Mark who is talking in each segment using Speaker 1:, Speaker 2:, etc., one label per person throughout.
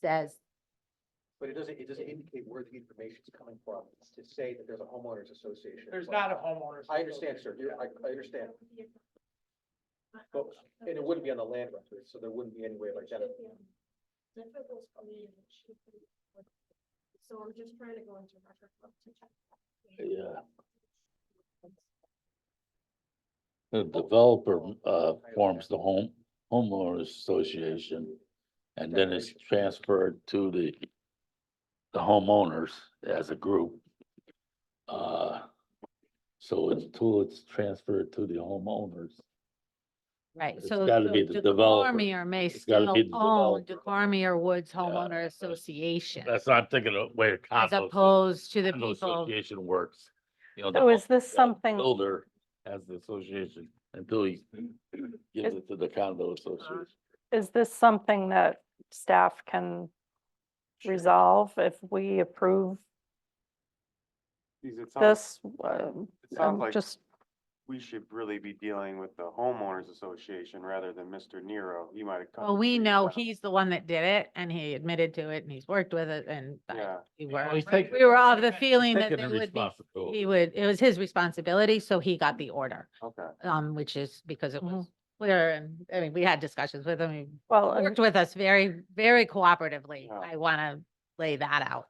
Speaker 1: says,
Speaker 2: But it doesn't, it doesn't indicate where the information is coming from, to say that there's a homeowners association.
Speaker 3: There's not a homeowners.
Speaker 2: I understand, sir, You're- I, I understand, but, and it wouldn't be on the land record, so there wouldn't be any way of identifying.
Speaker 4: Difficult for me, and it should be. So I'm just trying to go into record book to check.
Speaker 5: Yeah. The developer, uh, forms the home, homeowners association. And then it's transferred to the, the homeowners as a group. Uh, so until it's transferred to the homeowners,
Speaker 1: right,
Speaker 5: It's
Speaker 1: so.
Speaker 5: gotta be
Speaker 1: so
Speaker 5: the developer.
Speaker 1: DeCormier may
Speaker 5: It's gotta
Speaker 1: still
Speaker 5: be the
Speaker 1: own
Speaker 5: developer.
Speaker 1: DeCormier Woods
Speaker 5: Yeah.
Speaker 1: Homeowner Association
Speaker 5: that's not thinking of way
Speaker 1: as
Speaker 5: condo.
Speaker 1: opposed to the
Speaker 5: condo
Speaker 1: people.
Speaker 5: Association works. You know, the
Speaker 6: So is this
Speaker 5: Yeah, the
Speaker 6: something,
Speaker 5: Builder has the association until he gives it to the condo association.
Speaker 6: is this something that staff can resolve if we approve
Speaker 7: Because it sounds,
Speaker 6: this? Um,
Speaker 7: it
Speaker 6: I'm
Speaker 7: sounds like
Speaker 6: Just,
Speaker 7: we should really be dealing with the homeowners association rather than Mr. Nero. He might have come.
Speaker 1: Well, we
Speaker 7: to you
Speaker 1: know
Speaker 7: about-
Speaker 1: he's the one that did it and he admitted to it and he's worked with it and I-
Speaker 7: Yeah,
Speaker 1: we
Speaker 3: Well,
Speaker 1: were,
Speaker 3: he's taking-
Speaker 1: we were of
Speaker 3: he's
Speaker 1: the
Speaker 3: taking-
Speaker 1: feeling that
Speaker 5: Taking
Speaker 1: they
Speaker 5: the
Speaker 1: would be,
Speaker 5: responsibility.
Speaker 1: he would, it was his responsibility, so he got the order.
Speaker 7: okay.
Speaker 1: Um, which is because it
Speaker 6: Mhm.
Speaker 1: was clear and, I mean, we had discussions with him. He
Speaker 6: well, and-
Speaker 1: worked with us very, very cooperatively.
Speaker 7: Yeah.
Speaker 1: I want to lay that out.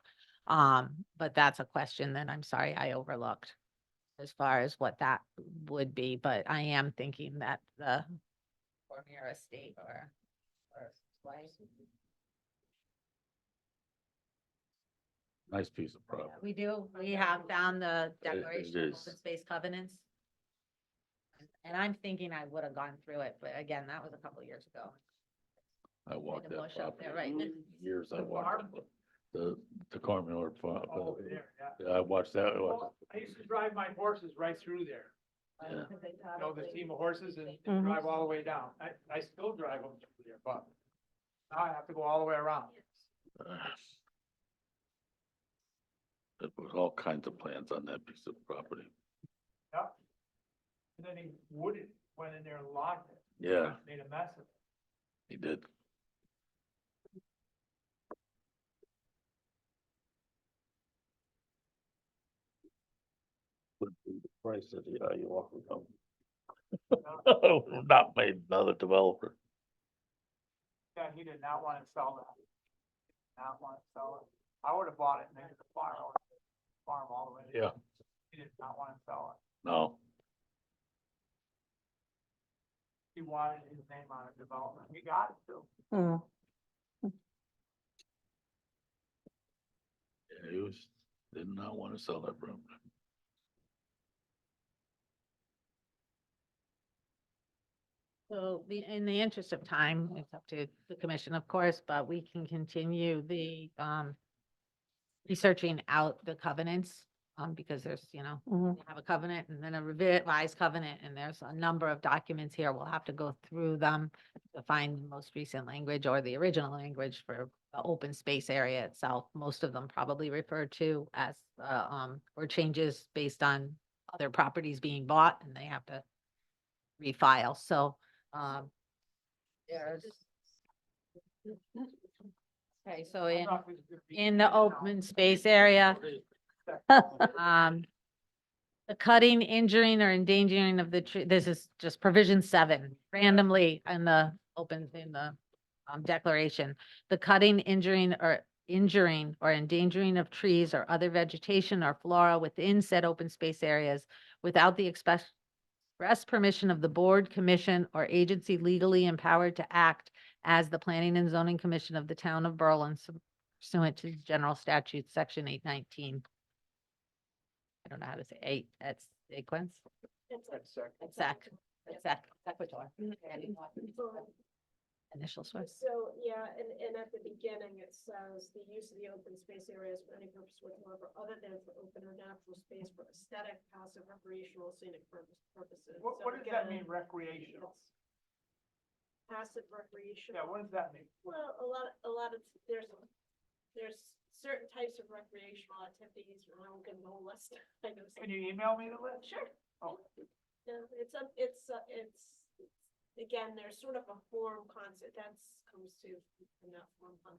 Speaker 1: Um, but that's a question that I'm sorry I overlooked as far as what that would be, but I am thinking that the Cormier Estate or or Slice-
Speaker 5: Nice piece of property.
Speaker 1: we do, we have down the
Speaker 5: It- it
Speaker 1: declaration of open
Speaker 5: is.
Speaker 1: space covenants. And I'm thinking I would have gone through it, but again, that was a couple of years ago.
Speaker 5: I walked
Speaker 1: the
Speaker 5: that
Speaker 1: bush out there,
Speaker 5: property
Speaker 1: right?
Speaker 5: for years. I
Speaker 3: The
Speaker 5: walked
Speaker 3: farm?
Speaker 5: it. the, the Cormier
Speaker 3: Over
Speaker 5: property.
Speaker 3: there, yeah.
Speaker 5: uh, I watched that. I watched
Speaker 3: Well, I used to drive my horses right through there,
Speaker 5: Yeah.
Speaker 3: you know, the team of horses and and
Speaker 6: Mhm.
Speaker 1: Mm-hmm.
Speaker 3: drive all the way down. I, I still drive them through there, but now I have to go all the way around.
Speaker 5: it. There was all kinds of plans on that piece of property.
Speaker 3: And then he wouldn't, went in there and locked it.
Speaker 5: Yeah,
Speaker 3: Made a mess of it.
Speaker 5: he did. Would be the Price of the, uh, you walk with them. Not made another developer.
Speaker 3: Yeah, he did not want to sell that. Not want to sell it. I would have bought it and then the farm, I would've farm all the way.
Speaker 5: Yeah.
Speaker 3: He did not want to sell it.
Speaker 5: No,
Speaker 3: He wanted his name on a development. He got it too.
Speaker 6: mm,
Speaker 5: yeah, he was, did not want to sell that room.
Speaker 1: So the, in the interest of time, it's up to the commission, of course, but we can continue the, um, researching out the covenants, um, because there's, you know,
Speaker 6: mhm.
Speaker 1: we have a covenant and then a revised covenant, and there's a number of documents here. We'll have to go through them to find the most recent language or the original language for the open space area itself. Most of them probably refer to as, uh, um, or changes based on other properties being bought and they have to refile, so, um, there's. Okay, so in, in the open space area, um, the cutting, injuring, or endangering of the tree, this is just provision seven, randomly in the open, in the um, declaration. The cutting, injuring, or injuring or endangering of trees or other vegetation or flora within said open space areas without the express express permission of the board, commission, or agency legally empowered to act as the Planning and Zoning Commission of the Town of Berlin pursuant to General Statute, Section eight nineteen. I don't know how to say eight, that's sequence,
Speaker 3: uh,
Speaker 1: exact, exact, equitor. Mm-hmm.
Speaker 4: uh,
Speaker 1: Initial source.
Speaker 4: So, yeah, and, and at the beginning, it says the use of the open space areas for any purpose whatsoever, other than for open or natural space for aesthetic, passive, recreational, scenic purpose- purposes.
Speaker 3: What,
Speaker 4: So
Speaker 3: what does that
Speaker 4: again,
Speaker 3: mean recreational?
Speaker 4: it's Passive
Speaker 3: Yeah,
Speaker 4: recreational.
Speaker 3: what does that mean?
Speaker 4: Well, a lot, a lot of, there's, there's certain types of recreational activities, and I'm gonna go list, I know. some-
Speaker 3: Can you email me the list?
Speaker 4: Sure.
Speaker 3: Oh.
Speaker 4: No, it's, a- it's, a- it's, again, there's sort of a form concept, that's comes to, from that form concept.